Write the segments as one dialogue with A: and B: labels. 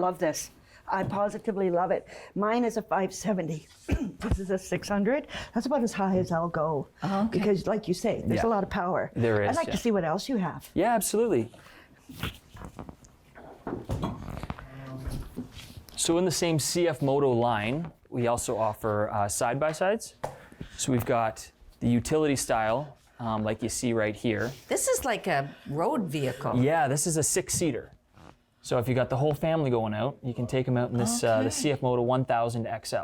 A: Love this. I positively love it. Mine is a 570. this is a 600. That's about as high as I'll go.
B: Oh, okay.
A: Because, like you say, there's a
C: Yeah.
A: lot of power.
C: There
A: I'd
C: is,
A: like to
C: yeah.
A: see what else you have.
C: Yeah, absolutely. So in the same CF Moto line, we also offer uh, side-by-sides. So we've got the utility style, um, like you see right here.
B: This is like a road vehicle.
C: Yeah, this is a six-seater. So if you got the whole family going out, you can take them out in this uh, the CF Moto 1000 XL.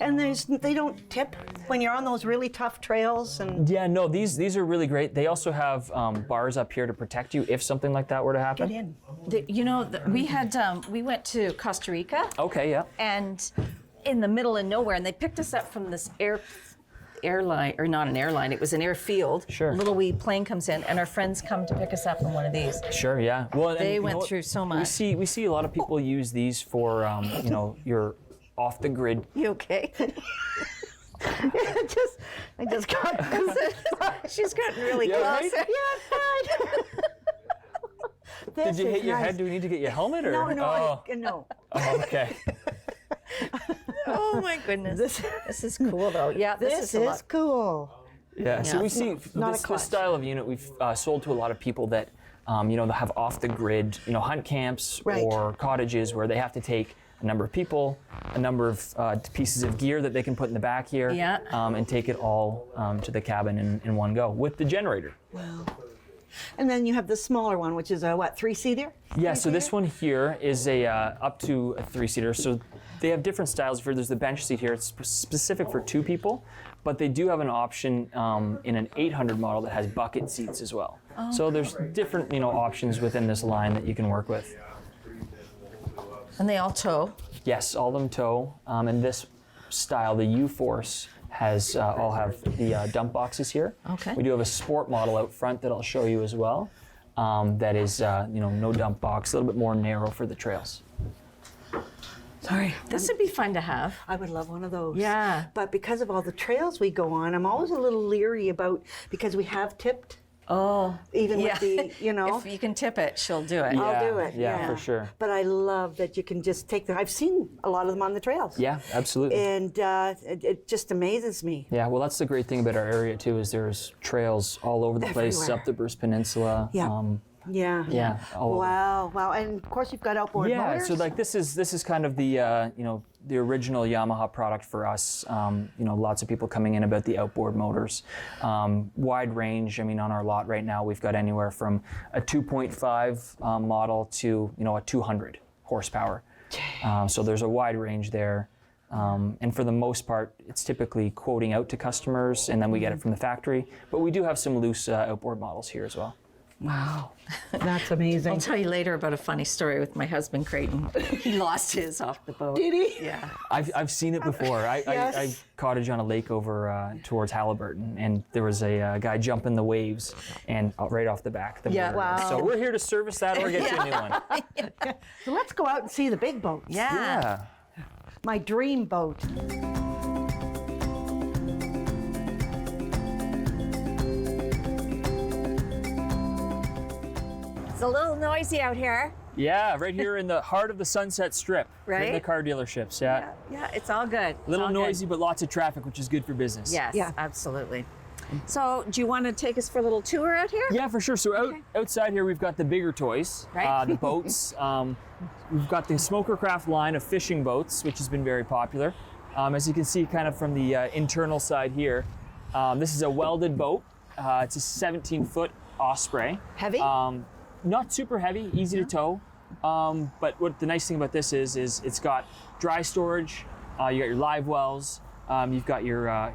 A: And there's, they don't tip when you're on those really tough trails. And
C: Yeah, no, these these are really great. They also have um, bars up here to protect you if something like that were to happen.
A: get in.
B: The- you know, the, we had um, we went to Costa Rica
C: Okay, yeah.
B: and in the middle of nowhere, and they picked us up from this air airline or not an airline, it was an airfield.
C: Sure.
B: Little wee plane comes in, and our friends come to pick us up in one of these.
C: Sure. Yeah. Well, and
B: They
C: you know
B: went
C: what?
B: through so
C: We
B: much.
C: see we see a lot of people use these for um, you know your off the grid.
B: You okay?
A: just, I just got
B: She's gotten really
C: Yeah, right?
B: close.
A: Yeah, fine.
C: Did you hit your head? Do we need to get your helmet or?
A: No, no,
C: Oh,
A: I, no.
C: oh, okay.
B: Oh my goodness. This, is cool though. Yeah, this,
A: This
B: is, a
A: is
B: lot.
A: cool.
C: Yeah. So
B: Yeah.
C: we see
A: Not a
C: this,
A: clutch.
C: this style of unit we've uh, sold to a lot of people that um, you know they have off the grid you know hunt camps
A: Right.
C: or cottages where they have to take. A number of people, a number of uh, pieces of gear that they can put in the back here,
B: Yeah.
C: um, and take it all um, to the cabin in, in one go with the generator.
A: And then you have the smaller one, which is a what, three seater?
C: Yeah, so this one here is a uh, up to a three seater. So they have different styles. For there's the bench seat here. It's sp- specific for two people, but they do have an option um, in an 800 model that has bucket seats as well. so there's different you know options within this line that you can work with.
B: And they all tow.
C: Yes, all them tow, um, and this style, the U Force has uh, all have the uh, dump boxes here.
B: Okay.
C: We do have a sport model out front that I'll show you as well. Um, that is uh, you know no dump box, a little bit more narrow for the trails.
A: Sorry.
B: This would be fun to have.
A: I would love one of those.
B: Yeah.
A: But because of all the trails we go on, I'm always a little leery about because we have tipped.
B: Oh,
A: Even with the, you know.
B: if you can tip it, she'll do it.
A: I'll
C: Yeah,
A: do it.
C: yeah, for sure.
A: But I love that you can just take them. I've seen a lot of them on the trails.
C: Yeah, absolutely.
A: And uh, it, it just amazes me.
C: yeah, well, that's the great thing about our area too is there's trails all over the place
A: Everywhere.
C: up the Bruce Peninsula. um,
A: Yeah. Yeah.
C: yeah. all over.
A: Wow. Wow. And of course, you've got outboard
C: Yeah,
A: motors.
C: so like this is this is kind of the uh, you know the original Yamaha product for us. Um, you know, lots of people coming in about the outboard motors, um, wide range. I mean, on our lot right now, we've got anywhere from a 2.5 uh, model to you know a 200 horsepower. Um, so there's a wide range there. Um, and for the most part, it's typically quoting out to customers, and then we get it from the factory. But we do have some loose uh, outboard models here as well.
B: Wow.
A: That's
B: I'll
A: amazing.
B: tell you later about a funny story with my husband Creighton. He lost his off the boat.
A: Did he?
B: Yeah.
C: I've, I've seen it before. I, I, I
A: Yes.
C: cottage on a lake over uh, towards Halliburton, and there was a uh, guy jumping the waves and uh, right off the back. The
B: Yeah.
C: motor.
A: Wow.
C: So we're here to service that or get you a new one.
A: So let's go out and see the big boats.
B: Yeah.
C: Yeah.
A: My dream boat.
D: It's a little noisy out here.
C: Yeah, right here in the heart of the Sunset Strip. In the
B: Right?
C: car dealerships. Yeah.
B: Yeah, yeah, it's all good. It's
C: A little
B: all good.
C: noisy, but lots of traffic, which is good for business.
B: Yes,
A: Yeah.
B: absolutely.
D: So, do you want to take us for a little tour out here?
C: Yeah, for sure. So out, outside here, we've got the bigger toys,
B: Right.
C: uh, the boats. um, we've got the Smoker Craft line of fishing boats, which has been very popular. Um, as you can see, kind of from the uh, internal side here, um, this is a welded boat. Uh, it's a 17 foot Osprey.
B: Heavy?
C: Um, not super heavy, easy to tow. Um, but what the nice thing about this is, is it's got dry storage. Uh, you got your live wells. Um, you've got your uh,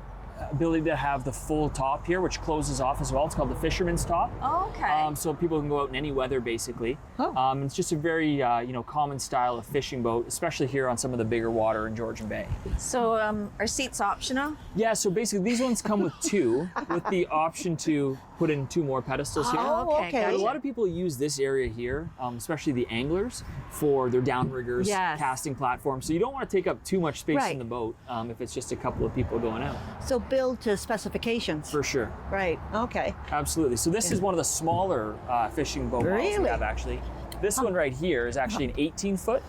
C: ability to have the full top here, which closes off as well. It's called the fisherman's top.
B: Okay.
C: Um, so people can go out in any weather, basically.
A: Oh.
C: Um, it's just a very uh, you know common style of fishing boat, especially here on some of the bigger water in Georgian Bay.
B: so um, are seats optional?
C: Yeah, so basically these ones come with two, with the option to put in two more pedestals here.
A: Oh, okay.
C: And
B: gotcha.
C: a lot of people use this area here, um, especially the anglers, for their downriggers,
B: Yes.
C: casting platforms. So you don't want to take up too much space
A: Right.
C: in the boat um, if it's just a couple of people going out.
A: So build to specifications.
C: For sure.
A: Right. Okay.
C: Absolutely. So this is one of the smaller uh, fishing boat models we
A: Really?
C: have actually. This one right here is actually an 18 foot.